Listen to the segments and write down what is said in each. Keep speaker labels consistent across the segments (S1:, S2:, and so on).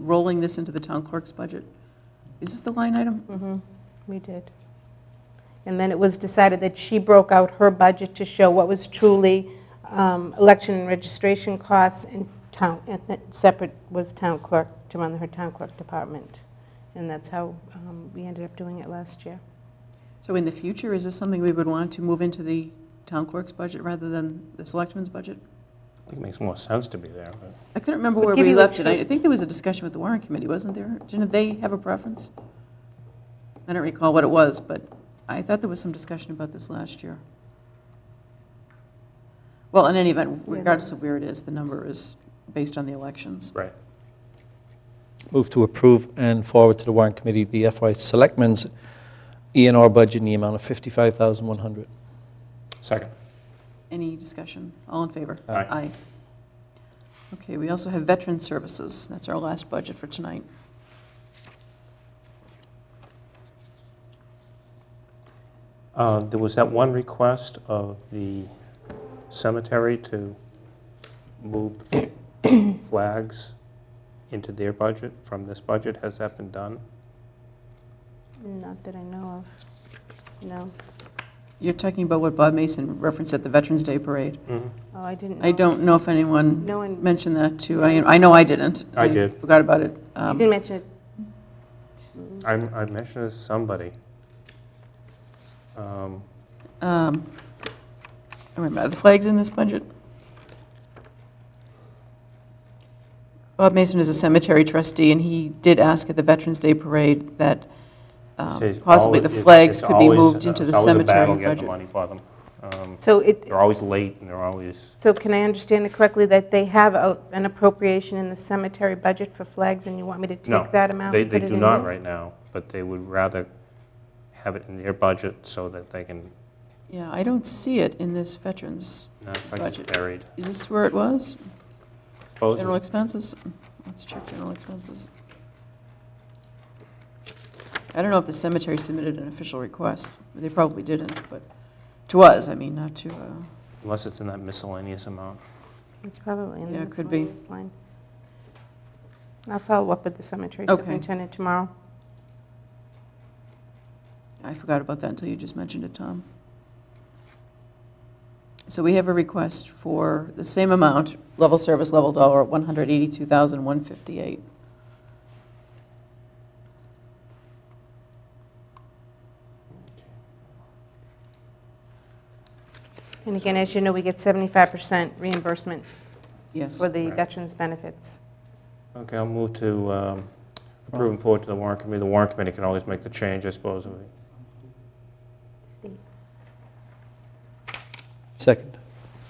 S1: rolling this into the town clerk's budget. Is this the line item?
S2: Mm-hmm. We did. And then it was decided that she broke out her budget to show what was truly um, election and registration costs and town, and that separate was town clerk, to run her town clerk department. And that's how um, we ended up doing it last year.
S1: So in the future, is this something we would want to move into the town clerk's budget rather than the selectmen's budget?
S3: I think it makes more sense to be there, but
S1: I couldn't remember where
S2: give
S1: we
S2: you a
S1: left it. I I
S2: true-
S1: think there was a discussion with the warrant committee, wasn't there? Didn't they have a preference? I don't recall what it was, but I thought there was some discussion about this last year. Well, in any event,
S2: there
S1: regardless of where it is, the number is based on the elections.
S3: right.
S4: Move to approve and forward to the warrant committee the FY Selectmen's ENR budget in the amount of 55100
S3: Second.
S1: Any discussion? All in favor?
S3: Aye.
S1: Aye. Okay, we also have Veteran Services. That's our last budget for tonight.
S3: Uh, There was that one request of the cemetery to move the f- flags into their budget from this budget. Has that been done?
S2: Not that I know of. No.
S1: You're talking about what Bob Mason referenced at the Veterans Day Parade.
S2: Oh, I didn't know.
S1: I don't know if anyone
S2: No one,
S1: mentioned that too. I, I know I didn't.
S3: I did.
S1: Forgot about it.
S2: you
S1: Um,
S2: didn't mention it.
S3: I'm- I mentioned it to somebody. Um,
S1: um, I Remember, are the flags in this budget? Bob Mason is a cemetery trustee, and he did ask at the Veterans Day Parade that um,
S3: says
S1: possibly the
S3: always-
S1: flags
S3: it's
S1: could be
S3: always- uh,
S1: moved into the
S3: it's always a battle
S1: cemetery budget.
S3: getting the money for them. Um,
S2: So it,
S3: They're always late and they're always,
S2: So can I understand it correctly that they have a- an appropriation in the cemetery budget for flags, and you want me to
S3: No,
S2: take that amount?
S3: they
S2: and
S3: they
S2: put it
S3: do
S2: in
S3: not
S2: here?
S3: right now, but they would rather have it in their budget so that they can
S1: Yeah, I don't see it in this Veterans.
S3: No, it's like it's
S1: Budget.
S3: buried.
S1: Is this where it was?
S3: Close
S1: General
S3: it.
S1: expenses? Let's check general expenses. I don't know if the cemetery submitted an official request. They probably didn't, but to us, I mean, not to, uh,
S3: Unless it's in that miscellaneous amount.
S2: It's probably in
S1: Yeah,
S2: the
S1: it could be.
S2: miscellaneous line. I'll follow up with the cemetery
S1: Okay.
S2: superintendent tomorrow.
S1: I forgot about that until you just mentioned it, Tom. So we have a request for the same amount, level service, level dollar, 182158
S2: And again, as you know, we get 75% reimbursement
S1: Yes.
S2: for the
S3: Right.
S2: veterans' benefits.
S3: Okay, I'll move to um, approve and forward to the warrant committee. The warrant committee can always make the change, I suppose. if we-
S4: Second.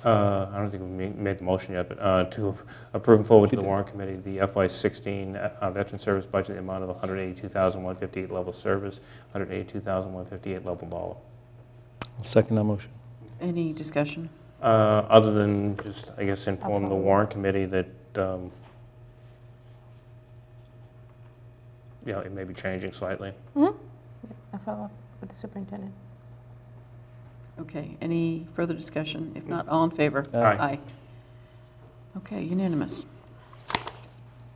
S3: uh, I don't think we ma- made the motion yet, but uh, to approve and forward to
S4: You
S3: the
S4: did.
S3: warrant committee, the FY16 uh, Veteran Service Budget, the amount of 182158 level service, 182158 level dollar.
S4: I'll second that motion.
S1: Any discussion?
S3: Uh, Other than just, I guess, inform the
S2: Absolutely.
S3: warrant committee that, um, you know, it may be changing slightly.
S2: I'll follow up with the superintendent.
S1: Okay, any further discussion? If not, all in favor?
S4: Aye.
S1: Aye. Okay, unanimous.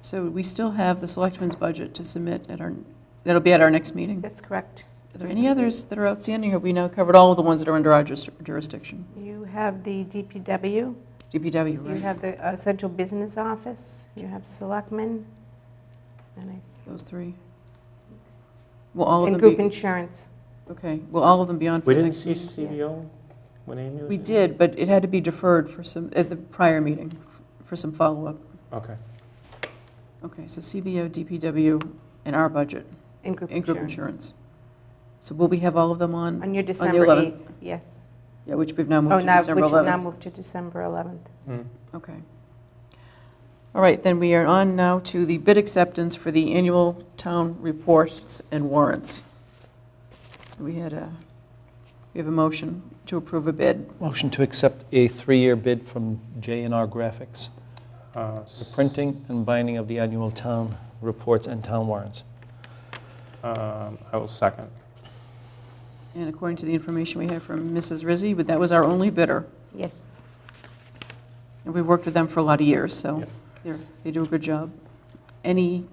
S1: So we still have the selectmen's budget to submit at our, that'll be at our next meeting.
S2: That's correct.
S1: Are there any others that are outstanding? Have we now covered all of the ones that are under our juris- jurisdiction?
S2: You have the DPW,
S1: DPW,
S2: you
S1: right?
S2: have the uh, central business office, you have selectmen, and I-
S1: Those three? Will all
S2: and
S1: of
S2: group
S1: them be,
S2: insurance.
S1: okay, will all of them be on for
S3: We
S1: the
S3: didn't
S1: next?
S3: see
S2: meeting, yes.
S3: CBO when Amy was?
S1: We
S3: here?
S1: did, but it had to be deferred for some, at the prior meeting, for some follow-up.
S3: Okay.
S1: Okay, so CBO, DPW, and our budget.
S2: And group
S1: And group
S2: insurance.
S1: insurance. So will we have all of them on,
S2: On your December
S1: 11th.
S2: 8th, yes.
S1: yeah, which we've now
S2: Oh,
S1: moved to
S2: now, which
S1: December
S2: will now
S1: 11th?
S2: move to December 11th.
S3: Mm.
S1: Okay. All right, then we are on now to the bid acceptance for the annual town reports and warrants. We had a, we have a motion to approve a bid.
S4: Motion to accept a three-year bid from J&R Graphics,
S3: Uh,
S4: the
S3: s-
S4: printing and binding of the annual town reports and town warrants.
S3: um, I will second.
S1: And according to the information we have from Mrs. Rizzi, but that was our only bidder.
S2: Yes.
S1: And we worked with them for a lot of years, so
S3: Yes.
S1: they're, they do a good job. Any